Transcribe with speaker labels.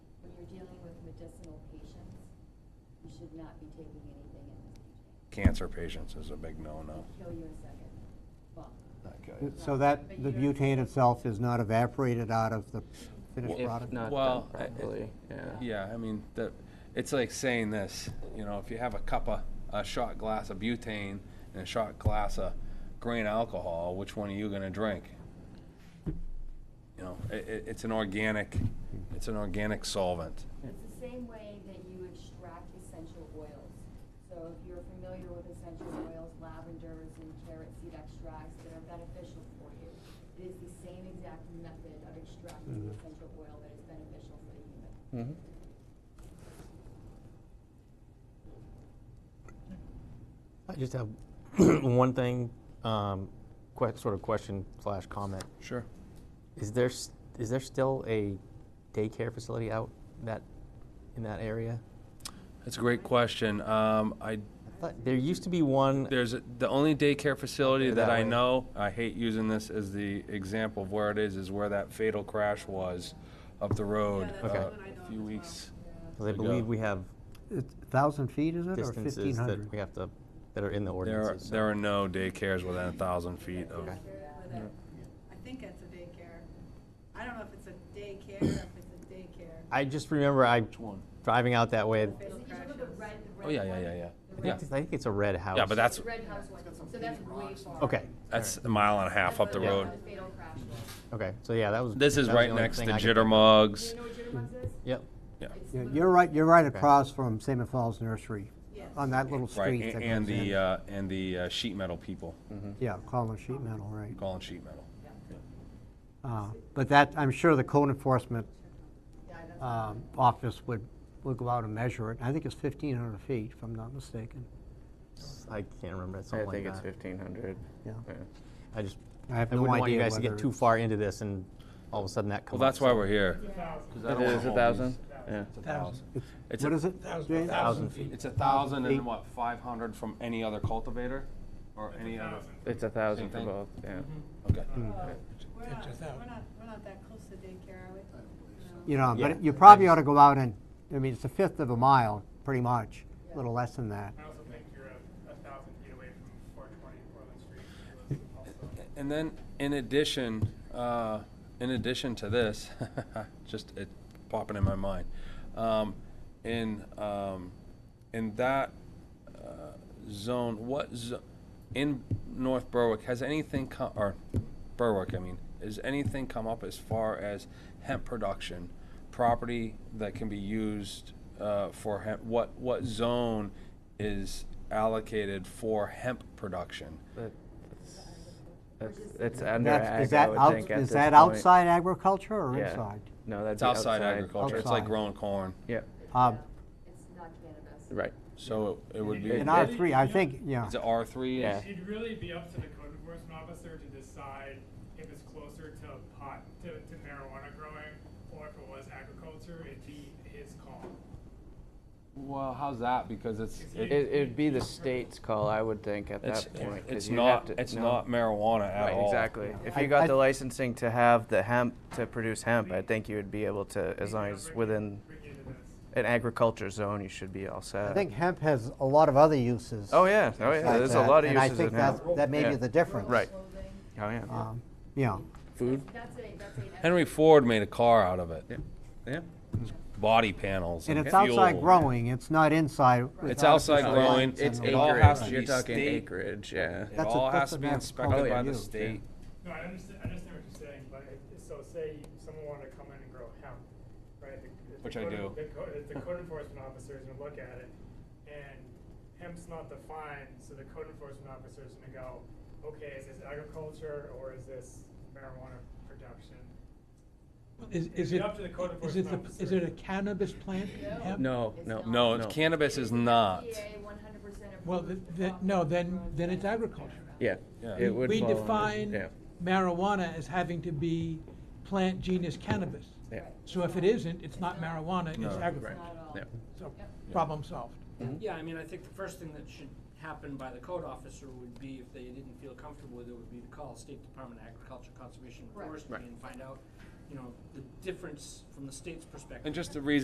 Speaker 1: medicinal patients, you should not be taking anything in this PJ.
Speaker 2: Cancer patients is a big no-no.
Speaker 1: Kill you in a second. Well,
Speaker 2: Not good.
Speaker 3: So that, the butane itself is not evaporated out of the finished
Speaker 2: Well-
Speaker 3: product?
Speaker 4: If not
Speaker 2: Well,
Speaker 4: done
Speaker 2: I- it-
Speaker 4: properly, yeah.
Speaker 2: Yeah, I mean, the, it's like saying this, you know, if you have a cup of, a shot glass of butane and a shot glass of grain alcohol, which one are you gonna drink? You know, i i it's an organic, it's an organic solvent.
Speaker 1: It's the same way that you extract essential oils. So if you're familiar with essential oils, lavenders and carrot seed extracts that are beneficial for you, it is the same exact method of extracting
Speaker 2: Mm-hmm.
Speaker 1: the essential oil that is beneficial for the human.
Speaker 5: I just have one thing, um, que- sort of question slash comment.
Speaker 2: Sure.
Speaker 5: Is there s- is there still a daycare facility out that in that area?
Speaker 2: That's a great question. Um, I,
Speaker 5: I thought there used to be one.
Speaker 2: there's, a- the only daycare facility
Speaker 5: They're
Speaker 2: that
Speaker 5: that
Speaker 2: I
Speaker 5: way.
Speaker 2: know, I hate using this as the example of where it is, is where that fatal crash was up the road.
Speaker 6: that's
Speaker 5: the
Speaker 2: uh,
Speaker 6: one I know
Speaker 2: A
Speaker 6: of
Speaker 2: few
Speaker 6: as well.
Speaker 2: weeks.
Speaker 5: Because I believe we have
Speaker 3: It's 1,000 feet, is it, or
Speaker 5: distances that
Speaker 3: 1,500?
Speaker 5: we have to that are in the
Speaker 2: There are,
Speaker 5: ordinances. so-
Speaker 2: there are no daycares within a thousand feet of,
Speaker 6: That's where that- I think that's a daycare. I don't know if it's a daycare, or if it's a daycare.
Speaker 5: I just remember I
Speaker 2: one?
Speaker 5: driving out that way.
Speaker 1: Is it usually the red, the red
Speaker 2: oh, yeah, yeah,
Speaker 1: one?
Speaker 2: yeah, yeah.
Speaker 1: The
Speaker 2: Yeah,
Speaker 5: I think it's a red house.
Speaker 2: yeah, but that's,
Speaker 1: The red house one, so that's way far.
Speaker 5: okay.
Speaker 2: that's a mile and a half up the
Speaker 1: That's
Speaker 2: road.
Speaker 1: where the fatal crash was.
Speaker 5: Okay. So yeah, that was.
Speaker 2: This is
Speaker 5: that was the
Speaker 2: right
Speaker 5: only
Speaker 2: next to
Speaker 5: thing I could-
Speaker 1: Do
Speaker 2: Jittermugs.
Speaker 1: you know what Jitterbugs is?
Speaker 5: Yep.
Speaker 1: It's
Speaker 3: Yeah,
Speaker 1: literally-
Speaker 3: You're right, you're right
Speaker 5: Okay.
Speaker 3: across from Salmon Falls Nursery,
Speaker 6: Yes.
Speaker 3: on that little
Speaker 2: Right,
Speaker 3: street that
Speaker 2: a-
Speaker 3: goes
Speaker 2: and the,
Speaker 3: in.
Speaker 2: uh, and the uh, sheet metal people,
Speaker 3: Yeah, column sheet metal, right.
Speaker 2: calling sheet metal.
Speaker 3: Uh, But that, I'm sure the code enforcement um, office would, would go out and measure it. I think it's 1,500 feet, if I'm not mistaken.
Speaker 5: I can't remember. It's
Speaker 4: I
Speaker 5: something
Speaker 4: think
Speaker 5: like
Speaker 4: it's
Speaker 5: that.
Speaker 4: fifteen hundred.
Speaker 3: Yeah.
Speaker 5: I just
Speaker 3: I have
Speaker 5: I
Speaker 3: no
Speaker 5: wouldn't want you
Speaker 3: idea
Speaker 5: guys to get
Speaker 3: whether
Speaker 5: too
Speaker 3: it's-
Speaker 5: far into this and all of a sudden that
Speaker 2: Well,
Speaker 5: comes
Speaker 2: that's why we're here.
Speaker 4: It is a thousand, yeah.
Speaker 2: It's a thousand. It's
Speaker 3: What
Speaker 2: a-
Speaker 3: is it? Jane?
Speaker 5: Thousand feet.
Speaker 2: It's a thousand and what, five hundred from any other cultivator or any other?
Speaker 4: It's a thousand for
Speaker 2: thing.
Speaker 4: both, yeah.
Speaker 3: Mm-hmm.
Speaker 2: Okay.
Speaker 5: Mm.
Speaker 6: We're not, we're not, we're not that close to daycare, are we? No.
Speaker 3: You know,
Speaker 5: Yeah.
Speaker 3: but you probably ought to go out and, I mean, it's a fifth of a mile, pretty much, a little less than that.
Speaker 7: I also think you're a, a thousand feet away from four twenty Portland Street, which is also.
Speaker 2: And then, in addition, uh, in addition to this, just it popping in my mind, um, in um, in that uh, zone, what zo- in North Berwick has anything come or Berwick? I mean, has anything come up as far as hemp production, property that can be used uh, for hemp? What what zone is allocated for hemp production?
Speaker 4: But That's, that's under
Speaker 3: That's- is
Speaker 4: ag, I
Speaker 3: that
Speaker 4: would
Speaker 3: out-
Speaker 4: think at
Speaker 3: Is
Speaker 4: this
Speaker 3: that
Speaker 4: point.
Speaker 3: outside agriculture or
Speaker 4: Yeah.
Speaker 3: inside?
Speaker 4: No, that'd
Speaker 2: It's
Speaker 4: be outside.
Speaker 2: outside agriculture. It's like
Speaker 3: Outside.
Speaker 2: growing corn.
Speaker 4: Yeah,
Speaker 3: Um,
Speaker 1: It's not cannabis.
Speaker 4: right.
Speaker 2: So it it would be,
Speaker 3: In
Speaker 2: is
Speaker 4: It-
Speaker 3: R
Speaker 4: Not-
Speaker 2: it
Speaker 3: three, I think, yeah.
Speaker 2: R three?
Speaker 4: Yeah.
Speaker 7: It'd really be up to the code enforcement officer to decide if it's closer to pot, to, to marijuana growing, or if it was agriculture, it'd be his call.
Speaker 2: Well, how's that? Because it's,
Speaker 4: It,
Speaker 2: it-
Speaker 4: it'd be the state's call, I would think, at
Speaker 2: it's,
Speaker 4: that point. 'cause
Speaker 2: it's
Speaker 4: you'd
Speaker 2: not,
Speaker 4: have to-
Speaker 2: it's
Speaker 4: no.
Speaker 2: not marijuana at
Speaker 4: Right,
Speaker 2: all.
Speaker 4: exactly. If
Speaker 3: I-
Speaker 4: you got
Speaker 3: I-
Speaker 4: the licensing to have the hemp, to produce hemp, I think you would be able to, as long as within
Speaker 7: Bring you to this.
Speaker 4: an agriculture zone, you should be all set.
Speaker 3: I think hemp has a lot of other uses.
Speaker 4: Oh, yeah, oh, yeah,
Speaker 3: besides
Speaker 4: there's a
Speaker 3: that,
Speaker 4: lot of
Speaker 3: and I
Speaker 4: uses
Speaker 3: think
Speaker 4: in hemp.
Speaker 3: that's- That may
Speaker 4: Yeah.
Speaker 3: be the difference.
Speaker 4: Right.
Speaker 1: Clothing.
Speaker 4: Oh, yeah.
Speaker 3: Um, Yeah.
Speaker 4: Food?
Speaker 1: That's a, that's a.
Speaker 2: Henry Ford made a car out of it.
Speaker 4: Yeah.
Speaker 2: Body panels
Speaker 3: And
Speaker 2: and
Speaker 3: it's outside
Speaker 2: fuel.
Speaker 3: growing, it's not inside.
Speaker 2: It's
Speaker 3: without
Speaker 2: outside
Speaker 3: the
Speaker 2: growing,
Speaker 3: lights
Speaker 2: it's
Speaker 3: and
Speaker 2: It
Speaker 3: all
Speaker 2: all
Speaker 3: that.
Speaker 2: has to be state-
Speaker 4: yeah.
Speaker 2: It
Speaker 3: That's a-
Speaker 2: all has
Speaker 3: that's
Speaker 2: to
Speaker 3: a
Speaker 2: be
Speaker 3: bad
Speaker 2: inspected
Speaker 3: call.
Speaker 2: by the
Speaker 3: Yeah.
Speaker 2: state.
Speaker 7: No, I understand, I understand what you're saying, but it- so say someone wanted to come in and grow hemp, right? the- the
Speaker 2: Which I do.
Speaker 7: code- The code, the code enforcement officer is gonna look at it, and hemp's not defined, so the code enforcement officer is gonna go, okay, is this agriculture or is this marijuana production?
Speaker 8: Is, is
Speaker 7: Be
Speaker 8: it,
Speaker 7: up to the code
Speaker 8: is it,
Speaker 7: enforcement
Speaker 8: the- is
Speaker 7: officer.
Speaker 8: it a cannabis plant? hemp?
Speaker 4: No,
Speaker 1: It's
Speaker 4: no.
Speaker 1: not.
Speaker 2: No, cannabis is not.
Speaker 1: one hundred percent approved.
Speaker 8: Well, th- th- no, then- then it's agriculture.
Speaker 4: Yeah.
Speaker 2: Yeah.
Speaker 4: It would
Speaker 8: We
Speaker 4: fall under-
Speaker 8: define
Speaker 4: yeah,
Speaker 8: marijuana as having to be plant genus cannabis.
Speaker 4: yeah.
Speaker 8: So if it isn't, it's not marijuana,
Speaker 2: No.
Speaker 8: it's agriculture.
Speaker 1: Not at all.
Speaker 4: Yeah.
Speaker 8: So,
Speaker 1: Yep.
Speaker 8: problem solved.
Speaker 9: Yeah, I mean, I think the first thing that should happen by the code officer would be, if they didn't feel comfortable with it, would be to call State Department of Agriculture, Conservation, and
Speaker 1: Correct.
Speaker 9: Forestry and find out, you know, the difference from the state's perspective.
Speaker 2: And just the reason